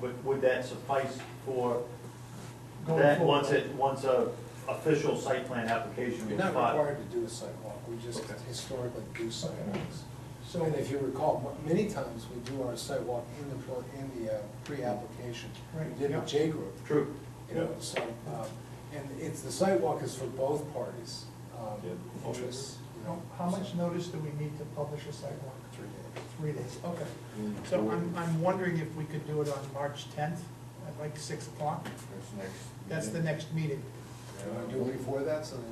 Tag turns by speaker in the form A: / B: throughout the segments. A: Would, would that suffice for
B: Going
A: that,
B: forward.
A: once it, once a official site plan application
C: You're
A: was
C: not
A: filed?
C: required to do a sidewalk, we just
A: Okay.
C: historically do sidewalks.
B: So-
C: And if you recall, mo- many times we do our sidewalk in the, pro- in the uh, pre-application.
B: Right,
C: We did
B: yeah.
C: the J group,
A: True.
C: you know,
B: Yeah.
C: so, um, and it's, the sidewalk is for both parties, um,
A: Yeah.
C: interests, you know.
B: How much
C: so-
B: notice do we need to publish a site walk?
C: Three days.
B: Three days, okay. So I'm, I'm wondering if we could do it on March tenth, at like six o'clock?
D: That's next.
B: That's the next meeting.
C: Do you wanna do it before that, so that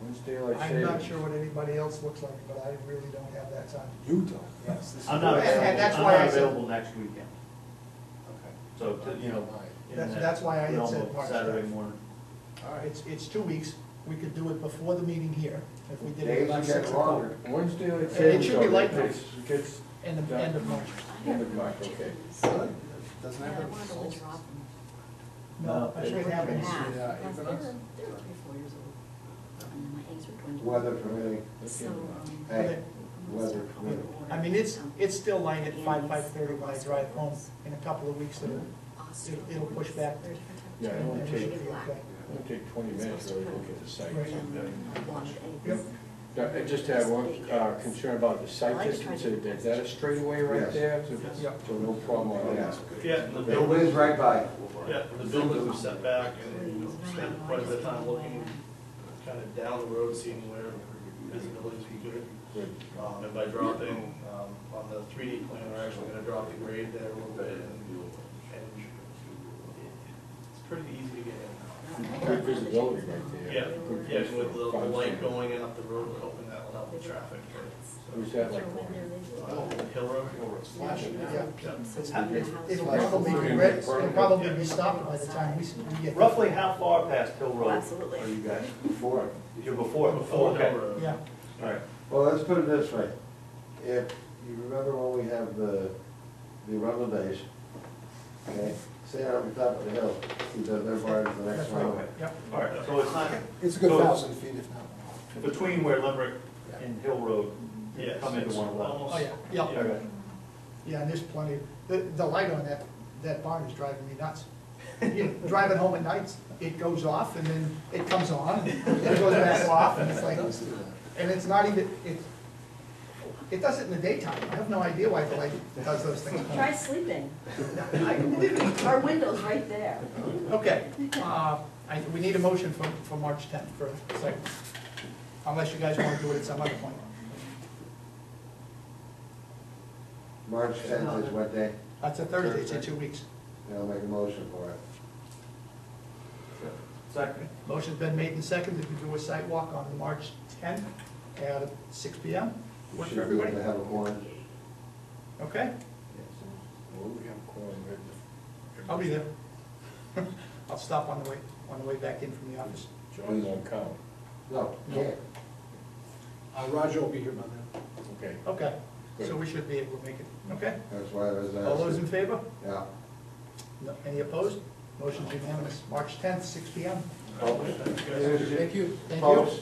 D: When's daylight
B: I'm
D: savings?
B: not sure what anybody else looks like, but I really don't have that time.
C: you don't, yes. this is-
A: I'm not
B: And- and that's
A: available, I'm not
B: why I said-
A: available next weekend,
C: Okay.
A: so, to- you know. in
B: That's-
A: that
B: that's why I had
A: realm
B: said
A: of
B: March
A: Saturday
B: tenth.
A: morning.
B: All right, Uh, it's, it's two weeks, we could do it before the meeting here, if we did it
D: Days
B: about
D: get
B: six o'clock.
D: longer. When's daylight
B: It
D: savings?
B: should be
D: though?
B: like
D: It gets- it Gets,
B: End of, end of March.
D: End of March, okay.
C: Really? Doesn't
E: Yeah,
C: have
E: I
C: a
E: wanted to
C: result?
E: withdraw from.
B: No, I should
A: It
B: have it.
A: happens.
E: Yeah,
C: Yeah,
E: because
C: even
E: they were,
C: us.
E: they were three, four years old, and then my eggs were dwindling.
D: Weather permitting.
E: So, um.
D: Hey,
E: I'm gonna
D: weather
E: start calling
D: permitting.
E: order
B: I mean, it's,
E: now.
B: it's still light at five,
E: Andes,
B: five-thirty when I drive home, in a couple of weeks, it'll,
E: Austria,
B: it'll- it'll push back.
E: they're different
D: Yeah, it
E: types.
D: won't
E: They
D: take-
E: should be black.
D: It'll take twenty minutes to really look at the site.
B: Right.
E: And then blonde eggs.
B: Yep.
D: Yeah, I just have one uh, concern about the site distance, is that a straightaway right
F: Yes.
D: there?
B: Yep.
D: So no problem on that.
A: Yeah, and the
F: It whizzed right by.
A: yeah, the buildings are set back, and you know, spend quite a bit of time looking kind of down the road, seeing where visibility is good.
D: Good.
A: Um, and by dropping, um, on the three D plan, we're actually gonna drop the grade there a little bit and, and it's pretty easy to get in.
D: Good visibility right there.
A: Yeah,
D: Good
A: yeah, and with the, the light
D: visibility.
A: going in up the road, we're hoping that will help the traffic. but-
D: Who's that like?
A: Oh, Hill Road?
B: Flashing, yeah.
E: So
B: It's-
E: your
B: it's-
E: house
B: It'll
E: was
B: probably be
E: long.
B: red, it'll probably be stopped by the time we, s- we get. there.
A: Roughly how far past Hill Road
E: Absolutely.
A: are you guys?
F: Before.
A: You're before? Before Hill Road.
B: Yeah,
A: All right.
F: Well, let's put it this way. If you remember when we have the, the rental days, okay, say on the top of the hill, you don't live far into the next
B: that's right,
F: round.
B: yep.
A: All right, so it's not
C: It's a good
A: So-
C: thousand feet if not more.
A: between where Limerick and Hill Road
G: Yes,
A: come into
G: it's
A: one lot?
G: almost-
B: Oh, yeah, yeah,
A: Okay.
B: yeah, and there's plenty, the, the light on that, that barn is driving me nuts. You know, Driving home at nights, it goes off and then it comes on, and it goes back off, and it's like, and it's not even, it, it does it in the daytime, I have no idea why the light does those things.
E: Try sleeping.
B: I can believe it.
E: Our window's right there.
B: Okay, uh, I, we need a motion for, for March tenth for a second, unless you guys wanna do it at some other point.
F: March tenth is what day?
B: That's a Thursday, it's in two weeks.
F: And I'll make a motion for it.
A: Second.
B: Motion's been made and seconded to do a site walk on March tenth at six P M. Work
F: Should
B: for
F: be able
B: everybody?
F: to have a horn.
B: Okay,
D: Well, we have quorum, right?
B: I'll be there. I'll stop on the way, on the way back in from the office.
D: John won't count.
F: No, can't.
C: Uh, Roger will be here by then.
D: Okay.
B: Okay, so we should be able to make it, okay?
F: That's why I was
D: Uh,
F: asking.
B: All those in favor?
F: Yeah.
B: No- Any opposed? Motion's unanimous. March tenth, six P M.
C: Thank you.
B: Thank you.
F: Folks,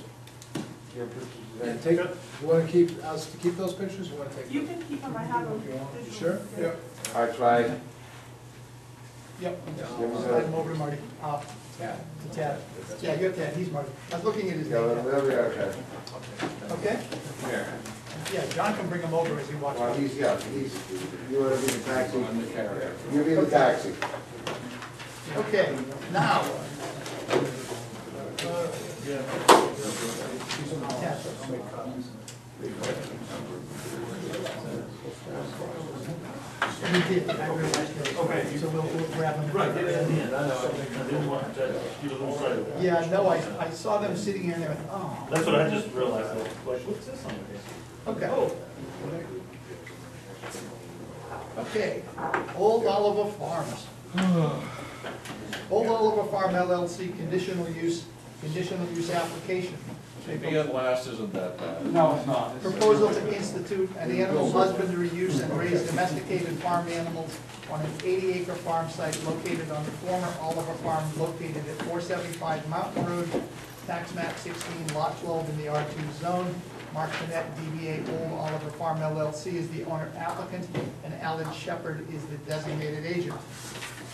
F: your pictures there.
C: And take, you wanna keep, us to keep those pictures, you wanna take them?
H: You can keep them, I have them.
C: You Sure? Yeah.
F: I tried.
B: Yep.
F: Give us a-
B: Slide him over to Marty, uh, to Tad. Yeah, you have Tad, he's Marty. I was looking at his
F: Yeah,
B: name.
F: there we are, okay.
B: Okay?
F: Here.
B: Yeah, John can bring him over as he walks
F: Well,
B: by.
F: he's, yeah, he's, you want to be the taxi?
D: I'm the carrier.
F: You be the taxi.
B: Okay, now. Yeah. We did, I realized that.
A: Okay, you-
B: So we'll, we'll grab him.
A: Right, get it in the end, I know, I didn't want to give a little side. of-
B: Yeah, no, I, I saw them sitting in there, oh.
A: That's what I just realized, I was like, what's this on the
B: Okay. Okay, Old Oliver Farms. Old Oliver Farm LLC conditional use, conditional use application.
D: last isn't that bad.
I: No, it's not. It's-
B: Proposal to institute an animal husbandry use and raise domesticated farm animals on an eighty acre farm site located on the former Oliver Farm located at four seventy-five Mountain Road, tax map sixteen, lot twelve in the R two zone. Mark Finette, DBA Old Oliver Farm LLC is the owner applicant, and Alan Shepherd is the designated agent.